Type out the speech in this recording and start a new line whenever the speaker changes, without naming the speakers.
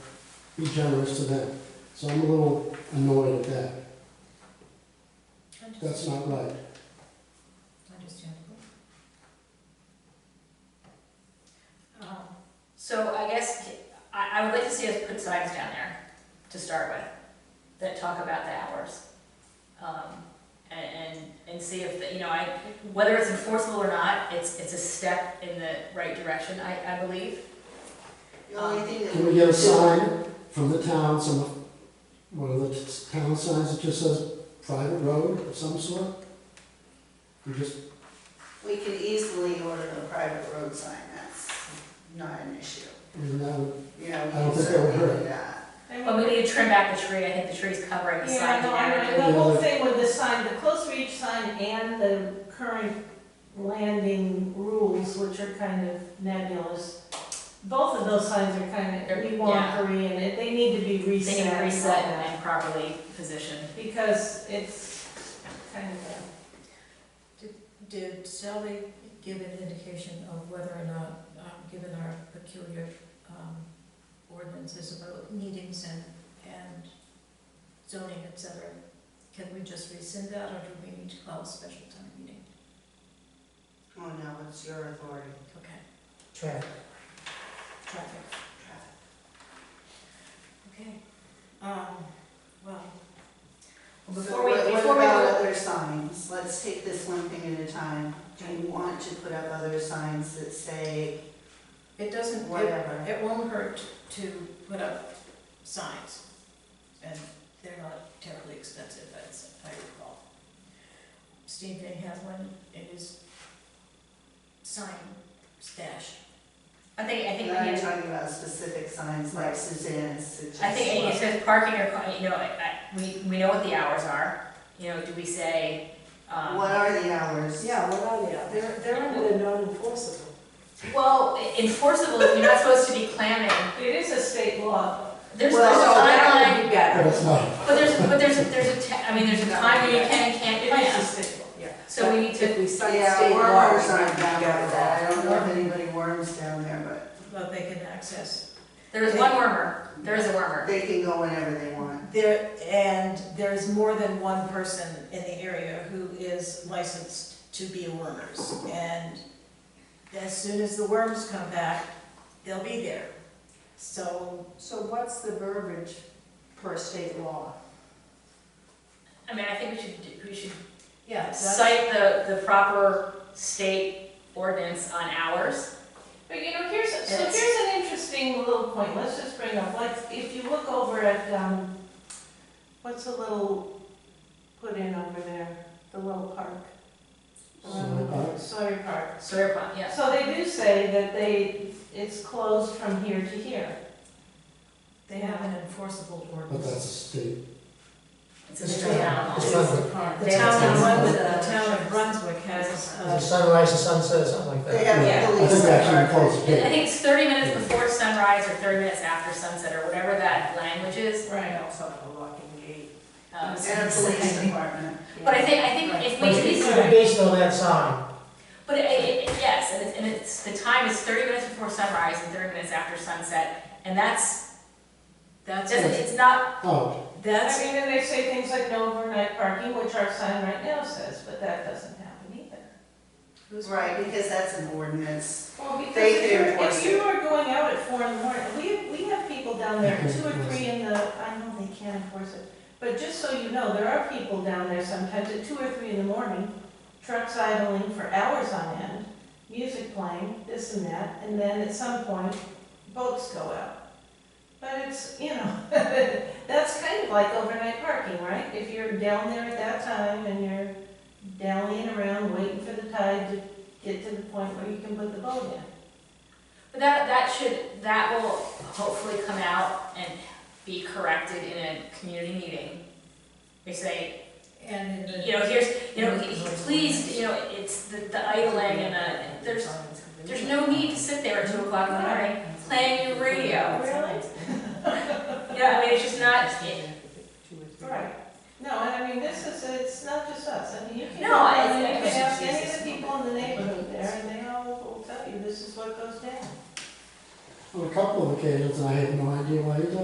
be generous to them. So I'm a little annoyed at that. That's not right.
Understandable. Um, So I guess, I, I would like to see us put signs down there to start with, that talk about the hours. Um, And, and, and see if, the- you know, I, whether it's enforceable or not, it's, it's a step in the right direction, I, I believe.
The only thing that.
Can we get a sign from the town, some, one of the t- town signs that just says private road of some sort? You just,
We can easily order a private road sign, that's not an issue.
I mean, that would-
You know, we
I don't
can
think that would
certainly
hurt.
do that.
But we need to trim back the tree, I think the tree's covering the sign.
Yeah, no, I
area.
know, the whole thing with the sign, the close reach sign and the current landing rules, which are kind of nebulous. Both of those signs are kind of, we want three in it, they need to be
They need
reset.
to reset and properly positioned.
Because it's kind of
Did Sally give an indication of whether or not, um, given our peculiar, um, ordinances about meetings and, and zoning, et cetera, can we just rescind that, or do we need to call a special town meeting?
Oh, no, it's your authority.
Okay,
Traffic.
traffic, okay. Um, well,
So
Before we,
what what
before we
about
go
other signs? Let's take this one thing at a time. Do you want to put up other signs that say
it doesn't, it,
whatever?
it won't hurt to put up signs, and they're not terribly expensive, as I recall. Steve Van has one in his sign stash.
I think, I think we
Now
need
you're
to,
talking about specific signs like
Right.
Suzanne's suggestion.
I think it says parking or, car- you know, I, I, we, we know what the hours are, you know, do we say, um.
What are the hours?
Yeah, what are they? They're, they're under the non-enforceable.
Well, enforceable, you're not supposed to be clamming,
a, it is a state law.
there's, there's a
Well, so
timeline.
That would be better.
but it's not.
But there's, but there's, a- there's a, te- I mean, there's a time where you can and can't
It is a
plan,
state law.
so we need to,
If we cite
Yeah,
state law, we
worms
might
aren't
be
down
better
there. I
off.
don't know if anybody worms down there,
But they can access.
there is one wormer, there is a wormer.
but they can go whenever they want.
There, and there's more than one person in the area who is licensed to be wormers. And as soon as the worms come back, they'll be there. So
So what's the verbiage per state law?
I mean, I think we should, do- we should
Yeah, that's,
cite the, the proper state ordinance on hours.
But you know, here's, so
It's-
here's an interesting little point, let's just bring up, like, if you look over at, um, what's the little put in over there, the little park? Um,
Sawyer Park?
Sawyer Park.
Sawyer Pond, yes.
So they do say that they, it's closed from here to here.
they have an enforceable
But that's a
ordinance.
state.
It's a straight animal.
It's not-
The town of Brunswick, the
It's-
town of Brunswick has,
Is it
uh,
sunrise or sunset or something like
They
that?
have
Yeah,
a
I
police.
think that should be
department.
closed
I
today.
think it's thirty minutes before sunrise or thirty minutes after sunset or whatever that language is.
Right.
also have a locking gate.
Um,
And a police department.
But I think, I think if we,
But
at
it's
least-
gonna be based on that sign,
but it, it, it- yes, and it's, and it's, the time is thirty minutes before sunrise and thirty minutes after sunset. And that's,
that's,
doesn't, it's not,
Oh,
I
that's,
mean, and they say things like no overnight parking, which our sign right now says, but that doesn't happen either.
who's right?
Right, because that's an ordinance.
Well, because
They
if
can
you're,
enforce
if you are going out at four in the morning, we, we have people down there,
They can
two or
enforce
three in the, I know they can't enforce it. But just so you know, there are people down there sometimes at two or three in the morning, trucks idling for hours on end, music playing, this and that, and then at some point, boats go out. But it's, you know, that's kind of like overnight parking, right? If you're down there at that time and you're dallying around waiting for the tide to get to the point where you can put the boat in.
but that, that should, that will hopefully come out and be corrected in a community meeting. We say,
And in the.
you know, here's, you know, he- he- please, you know, it's the, the idling and the, there's, there's no need to sit there at two o'clock in the morning playing your radio.
Really?
Yeah, I mean, it's just not, it-
Right. No, and I mean, this is, it's not just us, I mean, you can,
No,
go
I-
around and you
I-
can ask any of the people in the neighborhood there, and they all will tell you, this is what goes down.
on a couple of occasions, and I had no idea why you did